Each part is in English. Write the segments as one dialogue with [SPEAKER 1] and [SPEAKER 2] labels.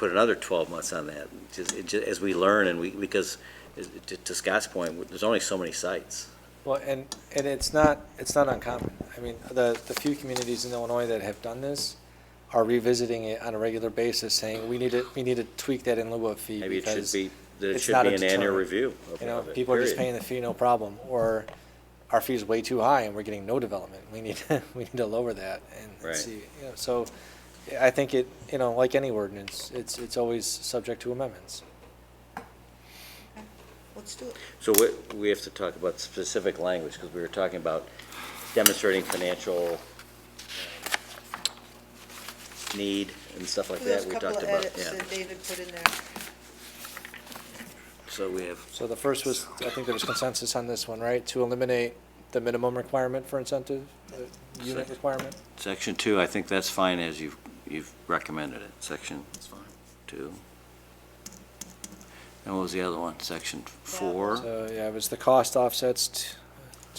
[SPEAKER 1] put another 12 months on that, just, it ju- as we learn and we, because, as- to- to Scott's point, there's only so many sites.
[SPEAKER 2] Well, and, and it's not, it's not uncommon. I mean, the, the few communities in Illinois that have done this are revisiting it on a regular basis, saying, we need to, we need to tweak that in lieu of fee.
[SPEAKER 1] Maybe it should
[SPEAKER 2] because,
[SPEAKER 1] be, there
[SPEAKER 2] it's
[SPEAKER 1] should
[SPEAKER 2] not
[SPEAKER 1] be
[SPEAKER 2] a
[SPEAKER 1] an annual
[SPEAKER 2] deterrent.
[SPEAKER 1] review of
[SPEAKER 2] You know,
[SPEAKER 1] of it,
[SPEAKER 2] people are just paying
[SPEAKER 1] period.
[SPEAKER 2] the fee, no problem, or our fee's way too high and we're getting no development. We need, we need to lower that and- and
[SPEAKER 1] Right.
[SPEAKER 2] see. you know, So I think it, you know, like any ordinance, it's, it's always subject to amendments.
[SPEAKER 3] Let's do it.
[SPEAKER 1] So we, we have to talk about specific language, because we were talking about demonstrating financial uh, need and stuff like that.
[SPEAKER 3] There's a
[SPEAKER 1] We
[SPEAKER 3] couple
[SPEAKER 1] talked
[SPEAKER 3] of
[SPEAKER 1] about
[SPEAKER 3] edits
[SPEAKER 1] yeah.
[SPEAKER 3] that David put in there.
[SPEAKER 1] So we have,
[SPEAKER 2] So the first was, I think there was consensus on this one, right? To eliminate the minimum requirement for incentive, the unit
[SPEAKER 1] Second.
[SPEAKER 2] requirement?
[SPEAKER 1] section two, I think that's fine as you've, you've recommended it, section two. And what was the other one, section four?
[SPEAKER 2] So, yeah, it was the cost offsets t-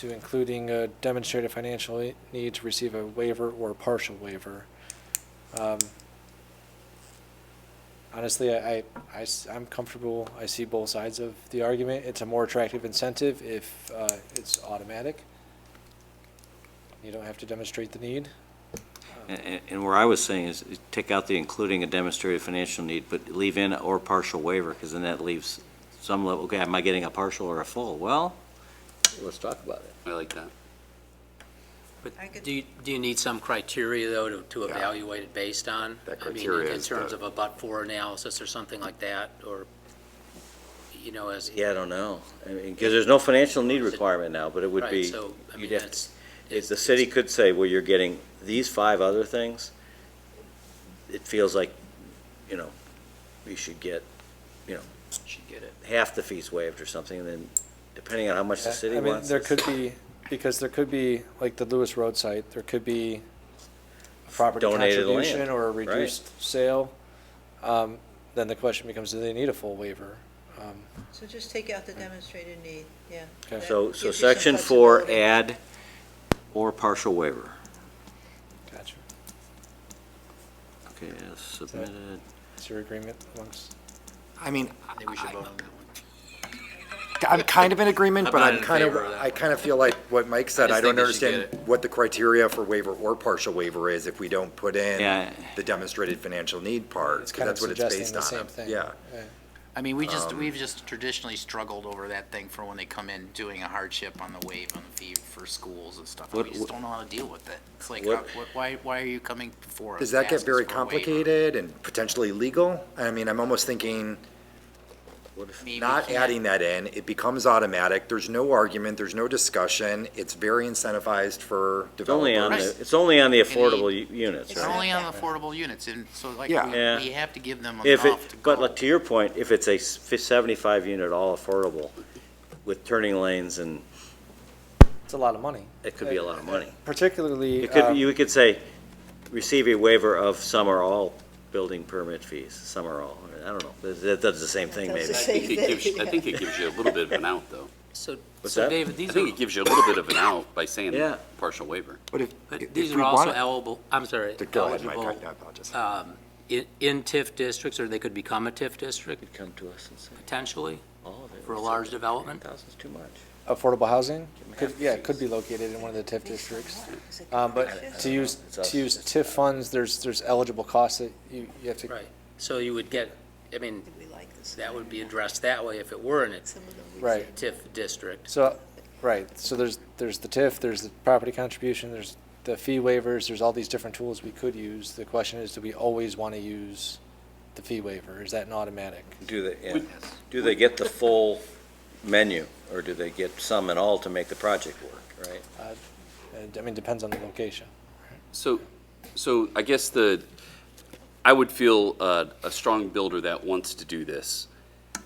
[SPEAKER 2] to including a demonstrated financial e- need to receive a waiver or partial waiver. Um, Honestly, I, I, am comfortable, I see both sides of the argument. It's a more attractive incentive if uh, it's automatic. You don't have to demonstrate the need.
[SPEAKER 1] And, and where I was saying is, is take out the including a demonstrated financial need, but leave in or partial waiver, because then that leaves some level, okay, am I getting a partial or a full? Well, let's talk about it.
[SPEAKER 4] I like that.
[SPEAKER 3] I could-
[SPEAKER 5] But do you, do you need some criteria, though, to, to
[SPEAKER 4] Yeah.
[SPEAKER 5] evaluate it based on?
[SPEAKER 4] That
[SPEAKER 5] I mean,
[SPEAKER 4] criteria is
[SPEAKER 5] In terms
[SPEAKER 4] the-
[SPEAKER 5] of a but-for analysis or something like that, or, you know, as.
[SPEAKER 1] Yeah, I don't know, I mean, because there's no financial need requirement now, but it would
[SPEAKER 5] Right,
[SPEAKER 1] be,
[SPEAKER 5] so, I
[SPEAKER 1] you'd
[SPEAKER 5] mean,
[SPEAKER 1] have-
[SPEAKER 5] that's-
[SPEAKER 1] if the city could say, well, you're getting these five other things, it feels like, you know, you should get
[SPEAKER 5] Should get it.
[SPEAKER 1] half the fees waived or something, and then depending on how much the
[SPEAKER 2] Yeah,
[SPEAKER 1] city
[SPEAKER 2] I mean,
[SPEAKER 1] wants.
[SPEAKER 2] There
[SPEAKER 1] it's-
[SPEAKER 2] could be, because there could be, like the Lewis Road site, there could be a property
[SPEAKER 1] Donated land,
[SPEAKER 2] contribution or a
[SPEAKER 1] right.
[SPEAKER 2] reduced sale. Um, Then the question becomes, do they need a full waiver? Um,
[SPEAKER 3] So just take out
[SPEAKER 1] Hmm.
[SPEAKER 3] the demonstrated need, yeah.
[SPEAKER 2] Okay.
[SPEAKER 3] That
[SPEAKER 1] So,
[SPEAKER 3] gives
[SPEAKER 1] so
[SPEAKER 3] you some
[SPEAKER 1] section four,
[SPEAKER 3] flexibility.
[SPEAKER 1] add or partial waiver.
[SPEAKER 2] Gotcha.
[SPEAKER 1] Okay, as submitted.
[SPEAKER 2] Is your agreement amongst,
[SPEAKER 6] I mean,
[SPEAKER 5] I think we should vote on that one.
[SPEAKER 6] I'm kind of in agreement,
[SPEAKER 4] I'm
[SPEAKER 6] but
[SPEAKER 4] not
[SPEAKER 6] I'm
[SPEAKER 4] in
[SPEAKER 6] kind of,
[SPEAKER 4] favor of that
[SPEAKER 6] I kind of feel like what Mike
[SPEAKER 4] I
[SPEAKER 6] said,
[SPEAKER 4] just
[SPEAKER 6] I don't
[SPEAKER 4] think we should
[SPEAKER 6] understand what the criteria for waiver or partial waiver is if we don't put in
[SPEAKER 1] Yeah,
[SPEAKER 6] the demonstrated financial need part,
[SPEAKER 2] It's
[SPEAKER 6] 'cause
[SPEAKER 2] kind of
[SPEAKER 6] that's what it's
[SPEAKER 2] suggesting
[SPEAKER 6] based
[SPEAKER 2] the same
[SPEAKER 6] on.
[SPEAKER 2] thing.
[SPEAKER 6] Yeah.
[SPEAKER 2] Right.
[SPEAKER 7] I mean, we just,
[SPEAKER 6] Um,
[SPEAKER 7] we've just traditionally struggled over that thing for when they come in doing a hardship on the wave on the fee for schools and stuff. We
[SPEAKER 1] What-
[SPEAKER 7] just don't know how to deal with it. It's like,
[SPEAKER 1] What-
[SPEAKER 7] uh, wh- why, why are you coming before us?
[SPEAKER 6] Does that
[SPEAKER 7] to
[SPEAKER 6] get
[SPEAKER 7] ask
[SPEAKER 6] very
[SPEAKER 7] us for a waiver?
[SPEAKER 6] complicated and potentially legal? I mean, I'm almost thinking,
[SPEAKER 7] I mean, we
[SPEAKER 6] not
[SPEAKER 7] can't-
[SPEAKER 6] adding that in, it becomes automatic, there's no argument, there's no discussion, it's very incentivized for
[SPEAKER 1] it's only on
[SPEAKER 6] developers.
[SPEAKER 1] the,
[SPEAKER 7] Right.
[SPEAKER 1] it's only on the affordable u- units,
[SPEAKER 7] It's
[SPEAKER 1] right?
[SPEAKER 7] only on affordable units, and so like, we
[SPEAKER 6] Yeah.
[SPEAKER 1] Yeah.
[SPEAKER 7] we have to give them
[SPEAKER 1] If it,
[SPEAKER 7] enough to
[SPEAKER 1] but
[SPEAKER 7] go.
[SPEAKER 1] like, to your point, if it's a s- fi- seventy-five unit all affordable with turning lanes and
[SPEAKER 2] It's a lot of money,
[SPEAKER 1] it could be a lot of money.
[SPEAKER 2] particularly,
[SPEAKER 1] It could,
[SPEAKER 2] um,
[SPEAKER 1] you could say, receive a waiver of some or all building permit fees, some or all, I don't know, that, that does the same thing
[SPEAKER 3] That
[SPEAKER 1] maybe.
[SPEAKER 3] does the
[SPEAKER 4] I
[SPEAKER 3] same
[SPEAKER 4] think it gives, I think it gives you a little bit of an out, though.
[SPEAKER 5] So,
[SPEAKER 1] What's
[SPEAKER 5] so
[SPEAKER 1] that?
[SPEAKER 5] David,
[SPEAKER 4] I
[SPEAKER 5] these are,
[SPEAKER 4] think it gives you a little bit of an out by saying
[SPEAKER 1] Yeah.
[SPEAKER 4] partial waiver.
[SPEAKER 6] But if,
[SPEAKER 5] but
[SPEAKER 6] if
[SPEAKER 5] these
[SPEAKER 6] we
[SPEAKER 5] are also
[SPEAKER 6] want it
[SPEAKER 5] eligible, I'm sorry,
[SPEAKER 6] to go ahead, Mike, I
[SPEAKER 5] eligible,
[SPEAKER 6] I apologize.
[SPEAKER 5] um, in, in TIF districts, or they could become a TIF district
[SPEAKER 1] Could come to us and say,
[SPEAKER 5] potentially,
[SPEAKER 1] all of it.
[SPEAKER 5] For a large development?
[SPEAKER 1] Thousand's too much.
[SPEAKER 2] affordable housing, could, yeah, it could be located in one of the TIF districts.
[SPEAKER 3] Is it
[SPEAKER 2] Um,
[SPEAKER 3] conscious?
[SPEAKER 2] But to use, to use TIF funds, there's, there's eligible costs that you, you have to
[SPEAKER 5] right? So you would get, I mean,
[SPEAKER 3] Did we like this?
[SPEAKER 5] that would be addressed that way if it were in a
[SPEAKER 3] Some of them we
[SPEAKER 2] Right.
[SPEAKER 5] TIF district.
[SPEAKER 2] So, right, so there's, there's the TIF, there's the property contribution, there's the fee waivers, there's all these different tools we could use. The question is, do we always want to use the fee waiver? Is that an automatic?
[SPEAKER 1] Do they, yeah. do they get the full menu, or do they get some and all to make the project work, right?
[SPEAKER 2] Uh, And, I mean, depends on the location.
[SPEAKER 4] So, so I guess the, I would feel uh, a strong builder that wants to do this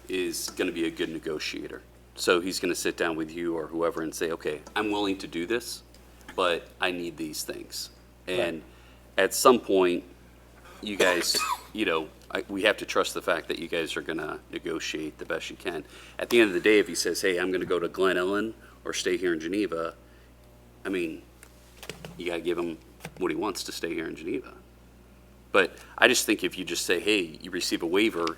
[SPEAKER 4] is going to be a good negotiator. So he's going to sit down with you or whoever and say, okay, I'm willing to do this, but I need these things. And at some point, you guys, you know, I, we have to trust the fact that you guys are going to negotiate the best you can. At the end of the day, if he says, hey, I'm going to go to Glen Ellen or stay here in Geneva, I mean, you got to give him what he wants to stay here in Geneva. But I just think if you just say, hey, you receive a waiver,